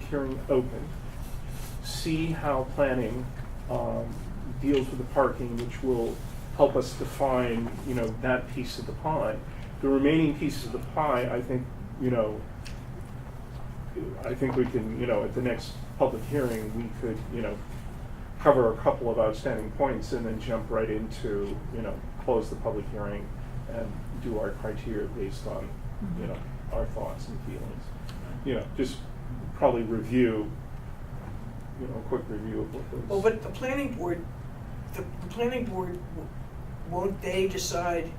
hearing open, see how planning um, deals with the parking, which will help us define, you know, that piece of the pie. The remaining pieces of the pie, I think, you know, I think we can, you know, at the next public hearing, we could, you know, cover a couple of outstanding points and then jump right into, you know, close the public hearing and do our criteria based on, you know, our thoughts and feelings. You know, just probably review, you know, a quick review of what those. Well, but the planning board, the the planning board, w- won't they decide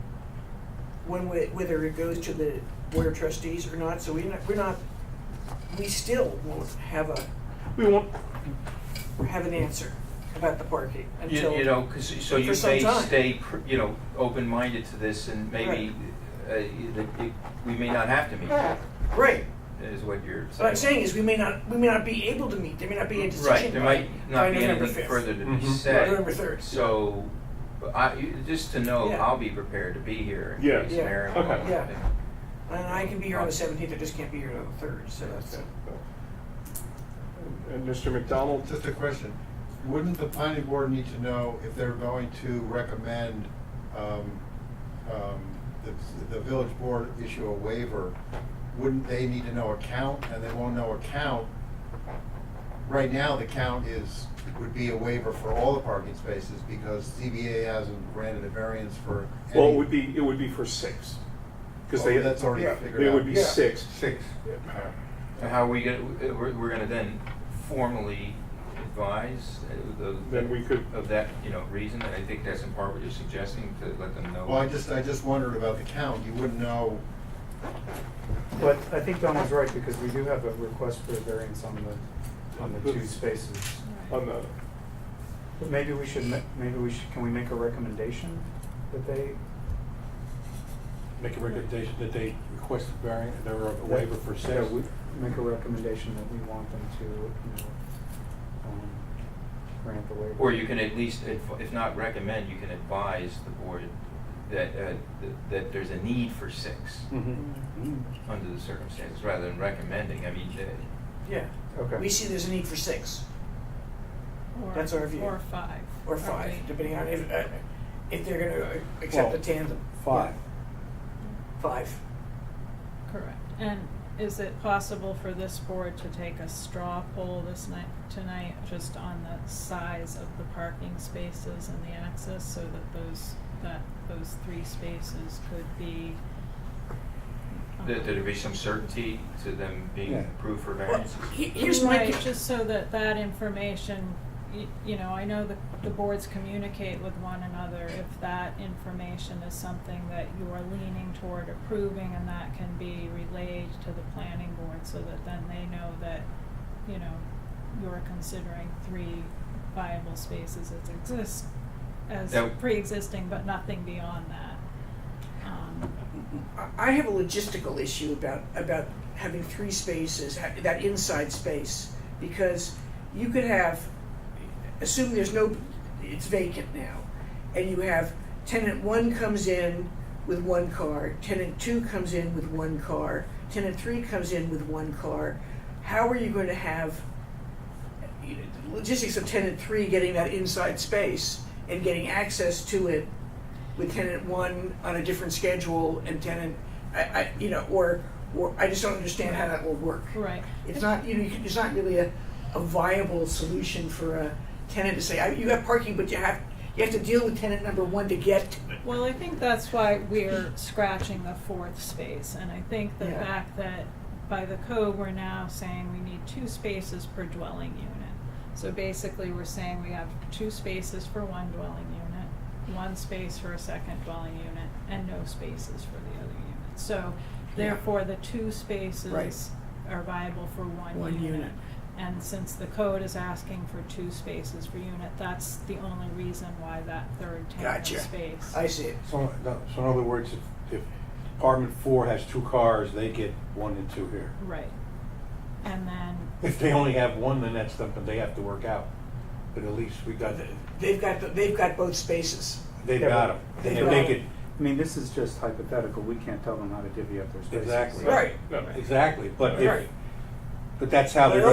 when, we- whether it goes to the board of trustees or not? So we're not, we're not, we still won't have a, We won't, have an answer about the parking You, until. you know, 'cause- so for you some may time. stay, pr- you know, open-minded to this and maybe, uh, you- that it- we may not have to meet, Right, is what you're saying. what I'm saying is we may not, we may not be able to meet, there may not be a Right, decision there by, might by not be November anything fifth. further to be Mhm. said. November 3rd. So, but I, you- just to know, Yeah. I'll be prepared to be here in Yeah. case Yeah. Mary. Okay. Yeah. And I can be here on the seventeenth, I just can't be here on the third, so that's, a- and Mr. McDonald, Just a question, wouldn't the planning board need to know if they're going to recommend, um, um, the, the village board issue a waiver? Wouldn't they need to know a count, and they won't know a count? Right now, the count is, would be a waiver for all the parking spaces, because ZBA hasn't granted a variance for any. well, it would be, it would be for six. Because they, Oh, That's already Yeah, figured out. they would be Yeah. six. Six. Yeah. So how are we gonna, uh, we're, we're gonna then formally advise uh, the. Then we could- Of that, you know, reason, and I think that's in part what you're suggesting, to let them know. Well, I just, I just wondered about the count, you wouldn't know, But I think Donald's right, because we do have a request for a variance on the, on the two spaces. On the, But maybe we should, ma- maybe we should, can we make a recommendation that they, Make a recommendation that they request a variance, or a waiver for yeah, six. we, make a recommendation that we want them to, you know, um, grant the waiver? Or you can at least, adv- if not recommend, you can advise the board that, uh, th- that there's a need for six Mm-hmm. Mm-hmm. Mm, under the circumstances, rather than recommending, I mean, uh, yeah. Okay. We see there's a need for six. Or- That's our view. Or five. Or Are five, we- depending on if, uh, if they're gonna uh, accept the Well, tandem. Five. Five. Correct. And is it possible for this board to take a straw poll this night, tonight, just on the size of the parking spaces and the access so that those, that those three spaces could be? um, that there'd be some certainty to them being Yeah. approved for Well, variances. he- here's my. Right, just so that that information, y- you know, I know the, the boards communicate with one another. If that information is something that you are leaning toward approving and that can be relayed to the planning board so that then they know that, you know, you're considering three viable spaces as exist, as That- pre-existing, but nothing beyond that. Um, I- I have a logistical issue about, about having three spaces, ha- that inside space, because you could have, assume there's no, it's vacant now, and you have tenant one comes in with one car, tenant two comes in with one car, tenant three comes in with one car. How are you going to have you know, the logistics of tenant three getting that inside space and getting access to it with tenant one on a different schedule and tenant, I, I, you know, or, or I just don't understand how that will work. Right. It's not, you know, you can- it's not really a, a viable solution for a tenant to say, I, you have parking, but you have, you have to deal with tenant number one to get to it. Well, I think that's why we're scratching the fourth space, and I think the Yeah. fact that by the code, we're now saying we need two spaces per dwelling unit. So basically, we're saying we have two spaces for one dwelling unit, one space for a second dwelling unit, and no spaces for the other unit. So therefore, the two spaces are viable for one unit. One unit. And since the code is asking for two spaces per unit, that's the only reason why that third tenant Gotcha. space. I see it. So, no, so in other words, if, if apartment four has two cars, they get one and two here. Right. And then, If they only have one, then that's something they have to work out. But at least we got, They've got, the- they've got both spaces. they've got them. They've If got they 'em. could, I mean, this is just hypothetical, we can't tell them how to divvy up their spaces. Exactly. Right. no. exactly, but if, Right. but that's how they're But